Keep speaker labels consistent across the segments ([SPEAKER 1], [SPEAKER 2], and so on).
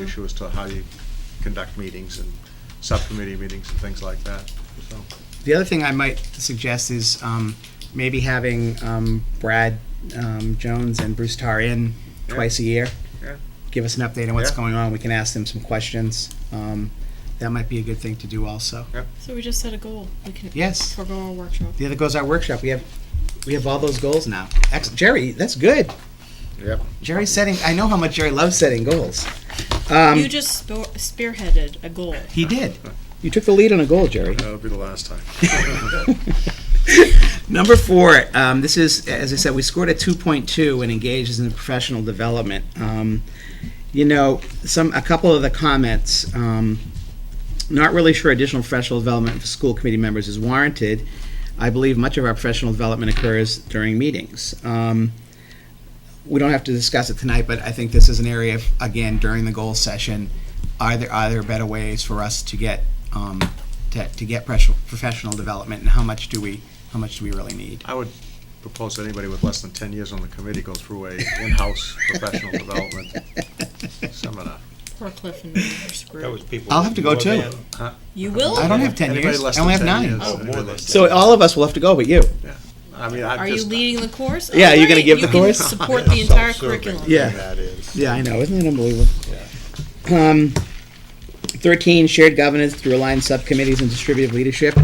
[SPEAKER 1] issue as to how you conduct meetings and subcommittee meetings and things like that, so.
[SPEAKER 2] The other thing I might suggest is um, maybe having um, Brad um, Jones and Bruce Tar in
[SPEAKER 1] Yeah.
[SPEAKER 2] twice a year.
[SPEAKER 1] Yeah.
[SPEAKER 2] Give us an update on what's
[SPEAKER 1] Yeah.
[SPEAKER 2] going on. We can ask them some questions. Um, that might be a good thing to do also.
[SPEAKER 3] So we just set a goal. We can
[SPEAKER 2] Yes.
[SPEAKER 3] forego our workshop.
[SPEAKER 2] The other goes our workshop. We have we have all those goals now. Ex- Jerry, that's good.
[SPEAKER 1] Yep.
[SPEAKER 2] Jerry's setting. I know how much Jerry loves setting goals. Um,
[SPEAKER 3] you just spo spearheaded a goal.
[SPEAKER 2] he did. You took the lead on a goal, Jerry.
[SPEAKER 1] That'll be the last time.
[SPEAKER 2] Number four, um, this is, as I said, we scored a 2.2 and engages in professional development. Um, you know, some a couple of the comments. Um, not really sure additional professional development for school committee members is warranted. I believe much of our professional development occurs during meetings. Um, we don't have to discuss it tonight, but I think this is an area, of, again, during the goal session, are there, are there better ways for us to get, um, to, to get professional, professional development, and how much do we, how much do we really need?
[SPEAKER 1] I would propose that anybody with less than ten years on the committee go through a in-house professional development seminar.
[SPEAKER 3] Poor Cliff and me are screwed.
[SPEAKER 4] That was people.
[SPEAKER 2] I'll have to go
[SPEAKER 4] more
[SPEAKER 2] too.
[SPEAKER 4] than-
[SPEAKER 3] you will?
[SPEAKER 2] I don't have ten
[SPEAKER 1] Anybody
[SPEAKER 2] years,
[SPEAKER 1] less
[SPEAKER 2] I only have
[SPEAKER 1] than 10
[SPEAKER 2] nine.
[SPEAKER 1] years,
[SPEAKER 4] Oh,
[SPEAKER 1] anybody
[SPEAKER 4] more than
[SPEAKER 1] less
[SPEAKER 2] So all of us will have to go but you.
[SPEAKER 1] I mean, I
[SPEAKER 3] Are
[SPEAKER 1] just.
[SPEAKER 3] you leading the course?
[SPEAKER 2] Yeah, you gonna
[SPEAKER 3] Alright,
[SPEAKER 2] give the
[SPEAKER 3] you can
[SPEAKER 2] course?
[SPEAKER 3] support the entire
[SPEAKER 4] Self-serving
[SPEAKER 3] curriculum.
[SPEAKER 2] Yeah.
[SPEAKER 4] That is.
[SPEAKER 2] Yeah, I know. Isn't it unbelievable? Um, 13, shared governance through aligned subcommittees and distributive leadership.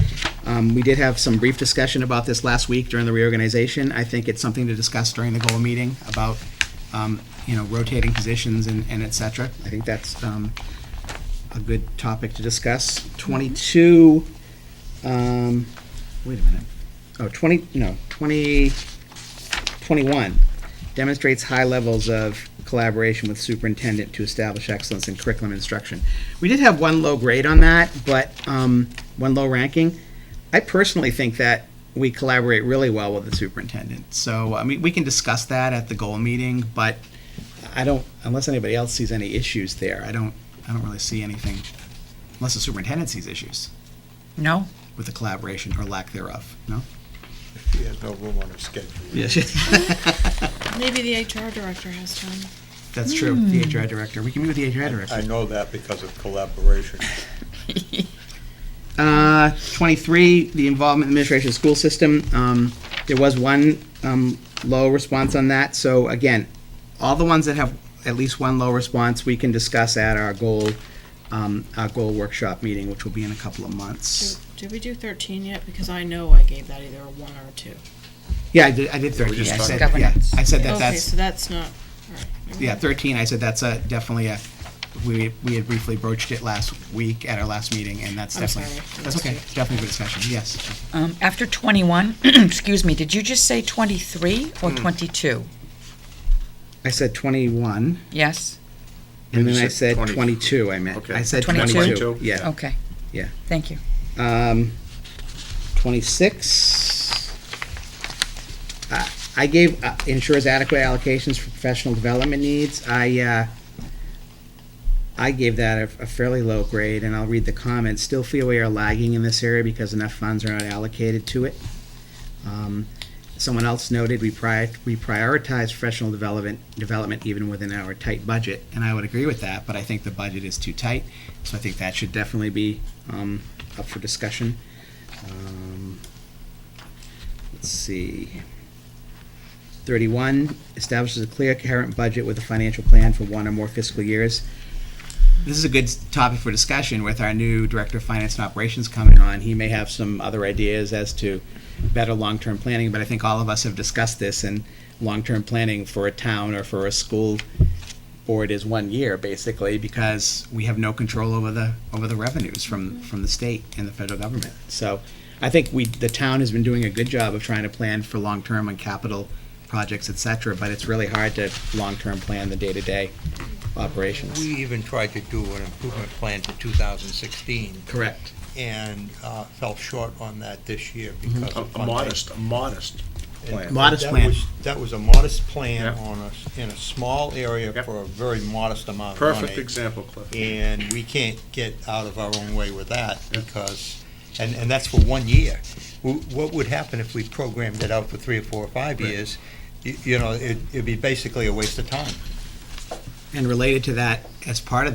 [SPEAKER 2] Um, we did have some brief discussion about this last week during the reorganization. I think it's something to discuss during the goal meeting about, um, you know, rotating positions and, and et cetera. I think that's, um, a good topic to discuss. 22, um, wait a minute. Oh, 20, no, 20, 21 demonstrates high levels of collaboration with superintendent to establish excellence in curriculum instruction. We did have one low grade on that, but, um, one low ranking. I personally think that we collaborate really well with the superintendent. So, I mean, we can discuss that at the goal meeting, but I don't, unless anybody else sees any issues there, I don't, I don't really see anything, unless the superintendent sees issues
[SPEAKER 5] No?
[SPEAKER 2] with the collaboration or lack thereof, no?
[SPEAKER 4] She has no room on her schedule.
[SPEAKER 3] Maybe the HR director has time.
[SPEAKER 2] That's true, the HR director. We can meet with the HR director.
[SPEAKER 4] I know that because of collaboration.
[SPEAKER 2] Uh, 23, the involvement in the administration of the school system. Um, There was one um, low response on that, so again, all the ones that have at least one low response, we can discuss at our goal, um, our goal workshop meeting, which will be in a couple of
[SPEAKER 3] Did,
[SPEAKER 2] months.
[SPEAKER 3] did we do 13 yet? Because I know I gave that either a 1 or a 2.
[SPEAKER 2] Yeah, I did, I did 13,
[SPEAKER 1] just
[SPEAKER 2] I
[SPEAKER 1] talked
[SPEAKER 2] said,
[SPEAKER 5] about
[SPEAKER 2] yeah,
[SPEAKER 5] governance.
[SPEAKER 2] I said that
[SPEAKER 3] okay,
[SPEAKER 2] that's,
[SPEAKER 3] so that's not. alright, never
[SPEAKER 2] yeah,
[SPEAKER 3] mind.
[SPEAKER 2] 13, I said that's a, definitely a, we, we had briefly broached it last week at our last meeting, and that's
[SPEAKER 3] I'm
[SPEAKER 2] definitely,
[SPEAKER 3] sorry.
[SPEAKER 2] that's okay, it's definitely for discussion, yes.
[SPEAKER 5] Um, after 21, excuse me, did you just say 23 or
[SPEAKER 2] Hmm.
[SPEAKER 5] 22?
[SPEAKER 2] I said 21.
[SPEAKER 5] Yes?
[SPEAKER 2] And
[SPEAKER 1] You
[SPEAKER 2] then I
[SPEAKER 1] said
[SPEAKER 2] said
[SPEAKER 1] 20.
[SPEAKER 2] twenty-two, I meant.
[SPEAKER 1] Okay.
[SPEAKER 2] I said
[SPEAKER 5] 22?
[SPEAKER 2] twenty-two, yeah.
[SPEAKER 5] Okay.
[SPEAKER 2] Yeah.
[SPEAKER 5] Thank you.
[SPEAKER 2] Um, twenty-six. Uh, I gave, uh, ensures adequate allocations for professional development needs. I, uh, I gave that a a fairly low grade, and I'll read the comments. Still feel we are lagging in this area because enough funds are not allocated to it. Um, Someone else noted we pri- we prioritize professional development, development even within our tight budget, and I would agree with that, but I think the budget is too tight, so I think that should definitely be um, up for discussion. Um, Let's see. 31, establishes a clear current budget with a financial plan for one or more fiscal years. This is a good s- topic for discussion with our new Director of Finance and Operations coming on. He may have some other ideas as to better long-term planning, but I think all of us have discussed this, and long-term planning for a town or for a school board is one year, basically, because we have no control over the, over the revenues from, from the state and the federal government. So I think we, the town has been doing a good job of trying to plan for long-term and capital projects, et cetera, but it's really hard to long-term plan the day-to-day operations.
[SPEAKER 6] We even tried to do an improvement plan for 2016
[SPEAKER 2] Correct.
[SPEAKER 6] and uh, fell short on that this year because
[SPEAKER 1] A
[SPEAKER 6] of
[SPEAKER 1] a
[SPEAKER 6] funding.
[SPEAKER 1] modest, a modest plan.
[SPEAKER 2] Mo- Mm-hmm. Modest
[SPEAKER 6] That
[SPEAKER 2] plan.
[SPEAKER 6] was- That was a modest plan
[SPEAKER 1] Yeah.
[SPEAKER 6] on a, s- in a small area
[SPEAKER 1] Yep.
[SPEAKER 6] for a very modest amount of money.
[SPEAKER 1] Perfect example, Cliff.
[SPEAKER 6] And we can't get out of our own way with that
[SPEAKER 1] Yep.
[SPEAKER 6] because, and, and that's for one year. W- What would happen if we programmed it out for three or four or five
[SPEAKER 1] Right.
[SPEAKER 6] years? Y- You know, it- it'd be basically a waste of time.
[SPEAKER 2] And related to that, as part of that.